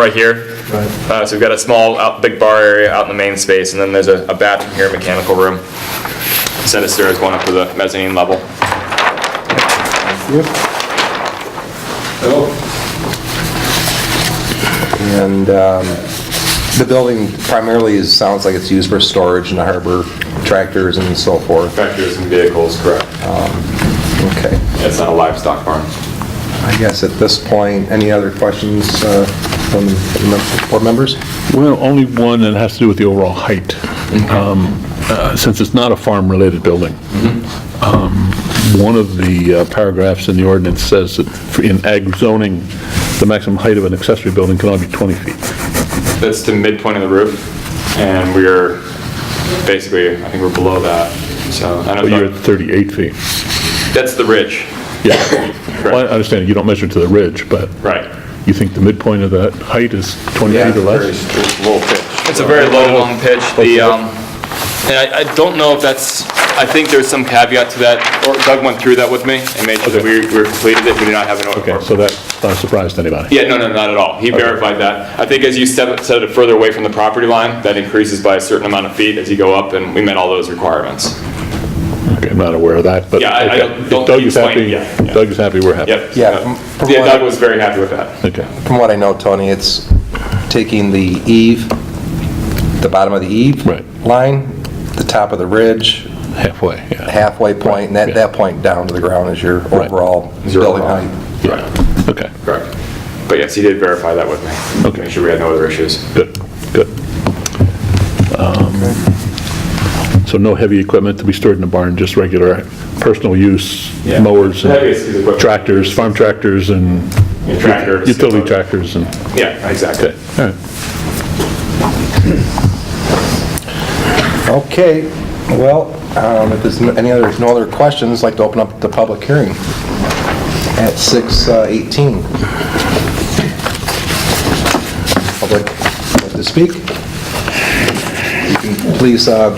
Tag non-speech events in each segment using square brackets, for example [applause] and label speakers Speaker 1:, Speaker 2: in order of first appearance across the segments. Speaker 1: right here. Uh, so we've got a small, out, big bar area out in the main space, and then there's a, a bathroom here, mechanical room. Set of stairs going up to the mezzanine level.
Speaker 2: And um, the building primarily is, sounds like it's used for storage and to harbor tractors and so forth.
Speaker 1: Tractors and vehicles, correct.
Speaker 3: Uh-huh.
Speaker 2: Okay.
Speaker 1: It's not a livestock farm.
Speaker 2: I guess at this point, any other questions uh, from the board members?
Speaker 3: Well, only one that has to do with the overall height, Um, uh, since it's not a farm-related building.
Speaker 1: Mm-hmm.
Speaker 3: Um, One of the uh, paragraphs in the ordinance says that for- in ag zoning, the maximum height of an accessory building can only be 20 feet.
Speaker 1: That's to midpoint of the roof, and we're basically, I think we're below that, so. I know
Speaker 3: But you're at
Speaker 1: that-
Speaker 3: 38 feet.
Speaker 1: That's the ridge,
Speaker 3: Yeah. Well, I understand you don't measure to the ridge, but
Speaker 1: right.
Speaker 3: you think the midpoint of that height is 20 feet or less?
Speaker 1: It's a very low, long pitch, the, um, and I, I don't know if that's, I think there's some caveat to that, or Doug went through that with me, and made sure that we, we completed it, we do not have an
Speaker 3: Okay,
Speaker 1: order.
Speaker 3: so that's not a surprise to anybody.
Speaker 1: Yeah, no, no, not at all, he verified that. I think as you step, set it further away from the property line, that increases by a certain amount of feet as you go up, and we met all those requirements.
Speaker 3: Okay, I'm not aware of that, but.
Speaker 1: Yeah, I- I
Speaker 3: okay.
Speaker 1: don't- don't
Speaker 3: If Doug's
Speaker 1: explain,
Speaker 3: happy-
Speaker 1: yeah, yeah.
Speaker 3: Doug's happy, we're happy.
Speaker 1: Yep. Uh,
Speaker 2: Yeah, from- from
Speaker 1: Yeah,
Speaker 2: what I-
Speaker 1: Doug was very happy with that.
Speaker 3: Okay.
Speaker 2: From what I know, Tony, it's taking the eave, the bottom of the eave
Speaker 3: Right.
Speaker 2: line, the top of the ridge,
Speaker 3: Halfway, yeah.
Speaker 2: halfway point, and at
Speaker 3: yeah.
Speaker 2: that point down to the ground is your
Speaker 3: Right.
Speaker 2: overall
Speaker 1: Is your
Speaker 2: building
Speaker 1: overall-
Speaker 2: height.
Speaker 3: Yeah. Okay,
Speaker 1: Correct. But yes, he did verify that with me.
Speaker 3: Okay.
Speaker 1: Make sure we had no other issues.
Speaker 3: good, good. Um, So no heavy equipment to be stored in the barn, just regular personal use
Speaker 1: Yeah.
Speaker 3: mowers, and
Speaker 1: The heaviest is equipment.
Speaker 3: tractors, farm tractors and
Speaker 1: And tractors.
Speaker 3: utility tractors and,
Speaker 1: Yeah, exactly.
Speaker 3: okay, all right.
Speaker 2: Okay, well, um, if there's no- any other, no other questions, I'd like to open up the public hearing at uh, 6:18. Public, like to speak? You can Please, uh...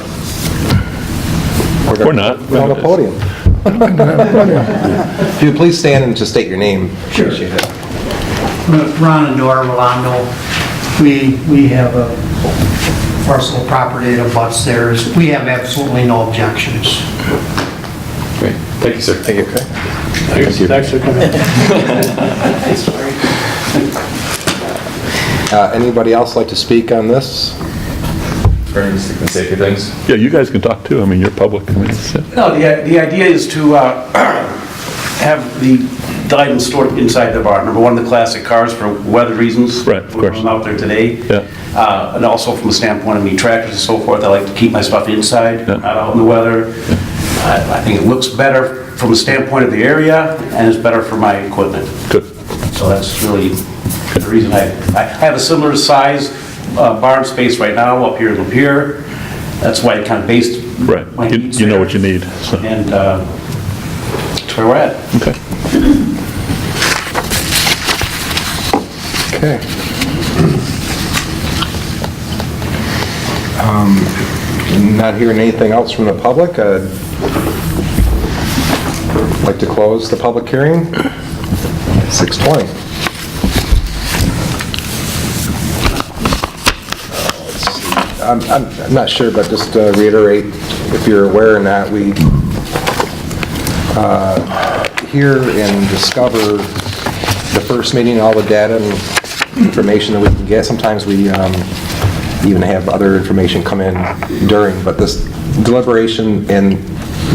Speaker 3: Or not.
Speaker 2: We're on the podium. If you please stand and just state your name.
Speaker 4: Sure.
Speaker 2: Appreciate it.
Speaker 4: Ron and Nora Rolando, we, we have a parcel of property that abuts theirs. We have absolutely no objections.
Speaker 1: Great. Thank you, sir. Thank you.
Speaker 2: Uh, Anybody else like to speak on this?
Speaker 1: Safety things?
Speaker 3: Yeah, you guys can talk too, I mean, you're public, I mean, it's- uh,
Speaker 5: No, the, i- the idea is to uh, [clears throat] have the the items stored inside the barn. Number one, the classic cars for weather reasons.
Speaker 3: Right, of course.
Speaker 5: We're out there today.
Speaker 3: Yeah.
Speaker 5: Uh, And also from a standpoint of me tractors and so forth, I like to keep my stuff inside,
Speaker 3: Yeah.
Speaker 5: not out in the weather. I I think it looks better from a standpoint of the area, and it's better for my equipment.
Speaker 3: good.
Speaker 5: So that's really the reason I, I have a similar size uh, barn space right now up here in Lapeer. That's why I kind of based.
Speaker 3: Right,
Speaker 5: my
Speaker 3: you
Speaker 5: needs
Speaker 3: you know
Speaker 5: there.
Speaker 3: what you need, so,
Speaker 5: And uh, that's where we're at.
Speaker 3: okay.
Speaker 2: Okay. Um, Not hearing anything else from the public, I'd like to close the public hearing. 6:20. Uh, I'm- I'm I'm not sure, but just to reiterate, if you're aware or not, we hear and discover the first meeting, all the data and information that we can get. Sometimes we um, even have other information come in during, but this deliberation and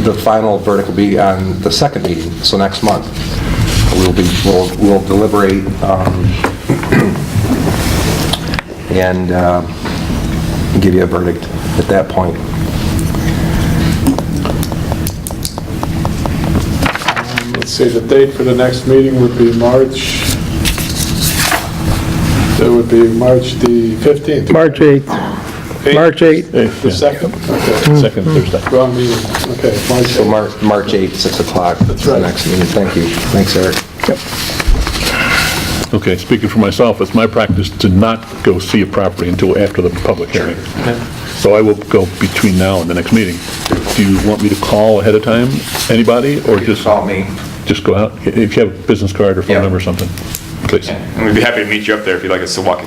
Speaker 2: the final verdict will be on the second meeting, so next month. We'll be, we'll we'll deliberate um, and uh, give you a verdict at that point.
Speaker 6: Let's see, the date for the next meeting would be March, that would be March the 15th.
Speaker 7: March 8th, March 8th.
Speaker 6: The second, okay,
Speaker 3: Second Thursday.
Speaker 6: wrong meeting, okay, March
Speaker 2: So
Speaker 6: 8th.
Speaker 2: Mar- March 8th, 6 o'clock. That's
Speaker 6: right.
Speaker 2: Next meeting, thank you. Thanks, Eric.
Speaker 3: Okay, speaking for myself, it's my practice to not go see a property until after the public hearing. So I will go between now and the next meeting. Do you want me to call ahead of time, anybody, or just?
Speaker 2: call me.
Speaker 3: Just go out, if you have a business card or
Speaker 2: Yeah.
Speaker 3: phone number or something, please.
Speaker 1: And we'd be happy to meet you up there if you'd like us to walk you